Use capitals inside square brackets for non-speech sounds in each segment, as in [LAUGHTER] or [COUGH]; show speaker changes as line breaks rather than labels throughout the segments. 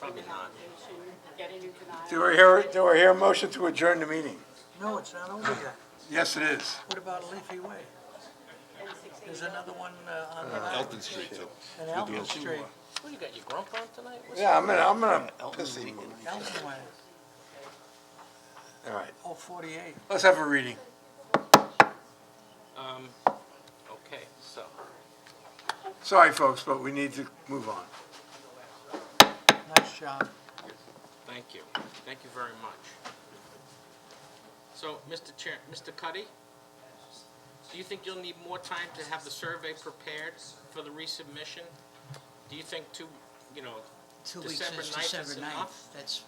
Probably not. Getting you tonight.
Do I hear, do I hear a motion to adjourn the meeting?
No, it's not over yet.
Yes, it is.
What about Leafy Way? There's another one uh, on the
Elton Street, too.
on Elton Street,
Well, you got your grump on tonight? What's-
Yeah, I'm in, I'm in a pissy mood.
Elton Way,
All right,
oh, 48.
let's have a reading.
Um, okay, so,
Sorry, folks, but we need to move on.
Nice job.
thank you. Thank you very much. So, Mr. Chair, Mr. Cuddy, do you think you'll need more time to have the survey prepared for the resubmission? Do you think two, you know,
Two weeks
December
is
9th is
December ninth,
enough?
that's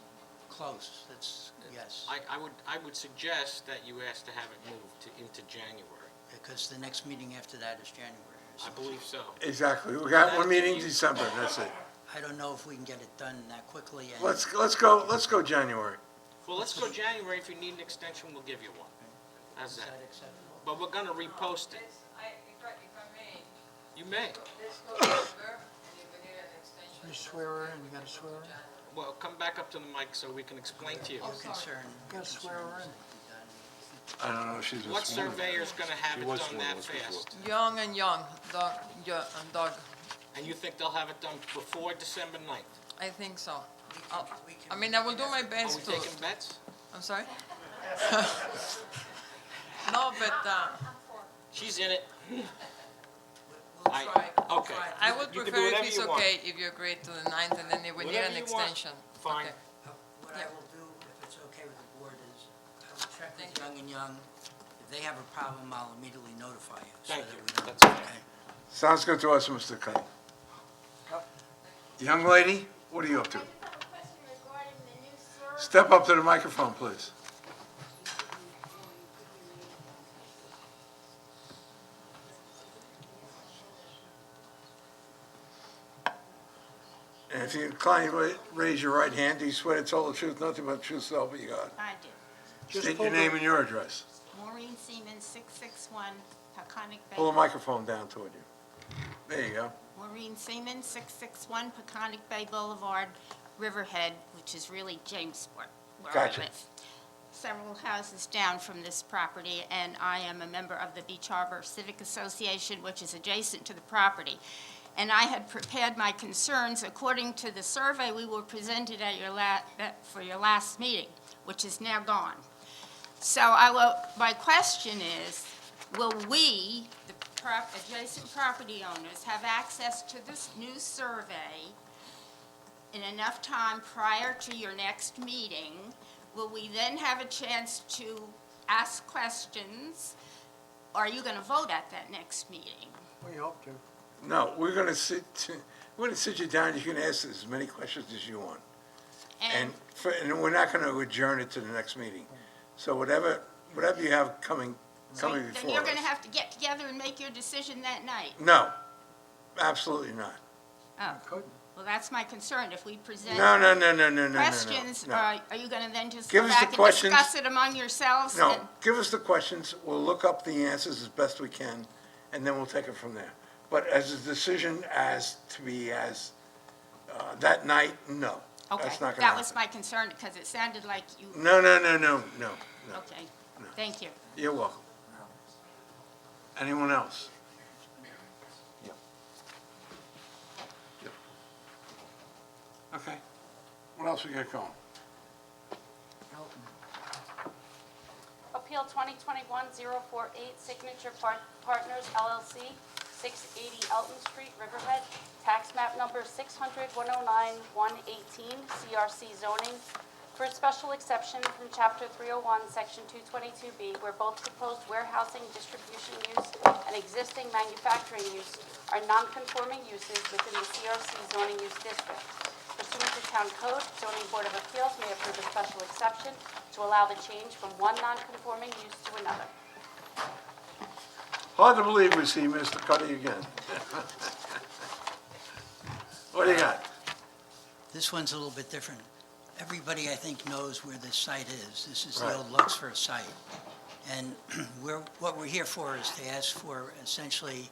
close, that's, yes,
I, I would, I would suggest that you ask to have it moved to, into January.
because the next meeting after that is January.
I
so
believe so.
Exactly, we got one meeting in December, that's it.
I don't know if we can get it done that quickly, and
Let's, let's go, let's go January.
Well, let's go January. If you need an extension, we'll give you one. How's
is that
that?
acceptable?
But we're gonna repost it.
This, I, if I, if I may,
You may.
this goes over, and you can get an extension.
You swearer and you got a swearer?
Well, come back up to the mic so we can explain to you.
Your concern,
You got a swearer in?
I don't know if she's a
What
sworn.
surveyor's gonna have it
was one
done
of
that
those before.
fast?
Young and young, dog, yeah, and dog,
And you think they'll have it done before December 9th?
I think so. I'll-
Oh,
I mean, I will do my
Are we
best to,
taking bets?
I'm sorry? [LAUGHS] No, but, uh,
She's in it.
we'll
I-
try, we'll
okay.
try. I would
You can do
prefer
whatever
if it's
you want.
okay if you agree to the ninth, and then if we need
Whatever
an
you want.
extension.
Fine.
Okay.
Uh, What I
Yeah.
will do, if it's okay with the board, is I will check with
Thank you.
Young and Young. If they have a problem, I'll immediately notify you. so
Thank
that
you.
we don't-
That's fine.
okay?
Sounds good to us, Mr. Cuddy. Young lady, what are you up to?
I just have a question regarding the new survey.
Step up to the microphone, please. And if you incline, ra- raise your right hand. Do you swear to tell the truth, nothing but the truth, so help you God?
I do.
Just
State your
hold
name
the-
and your address.
Maureen Seaman, 661 Peconic Bay.
Pull the microphone down toward you. There you go.
Maureen Seaman, 661 Peconic Bay Boulevard, Riverhead, which is really Jamesport, where I
Gotcha.
live. Several houses down from this property, and I am a member of the Beach Harbor Civic Association, which is adjacent to the property. And I had prepared my concerns according to the survey we were presented at your la, that- for your last meeting, which is now gone. So I will, my question is, will we, the prop, adjacent property owners, have access to this new survey in enough time prior to your next meeting? Will we then have a chance to ask questions? Are you gonna vote at that next meeting?
We hope to.
No, we're gonna sit, we're gonna sit you down. You can ask as many questions as you want. And, for- and we're not gonna adjourn it to the next meeting. So whatever, whatever you have coming, coming
Then
before
you're
us.
gonna have to get together and make your decision that night.
No, absolutely not.
Oh,
Couldn't.
well, that's my concern, if we present
No, no, no, no, no, no, no, no.
questions, uh,
no.
are are you gonna then just
Give
go
us the
back and
questions.
discuss it among yourselves?
No,
and-
give us the questions, we'll look up the answers as best we can, and then we'll take it from there. But as a decision as to be as, uh, that night, no.
Okay,
That's not gonna
that was
happen.
my concern, because it sounded like you,
No, no, no, no, no, no.
okay, thank you.
You're welcome. Anyone else? Okay, what else we got going?
Appeal 2021-048 Signature Par- Partners LLC, 680 Elton Street, Riverhead, tax map number 600-109-118, CRC zoning, for a special exception from Chapter 301, Section 222B, where both proposed warehousing, distribution use, and existing manufacturing use are non-conforming uses within the CRC zoning use district. Pursuant to Town Code, zoning board of appeals may approve a special exception to allow the change from one non-conforming use to another.
Hard to believe we see Mr. Cuddy again. [LAUGHS] What do you got?
This one's a little bit different. Everybody, I think, knows where this site is. This is
Right.
the old [CLEARS THROAT] Luxfer site. And we're, what we're here for is to ask for essentially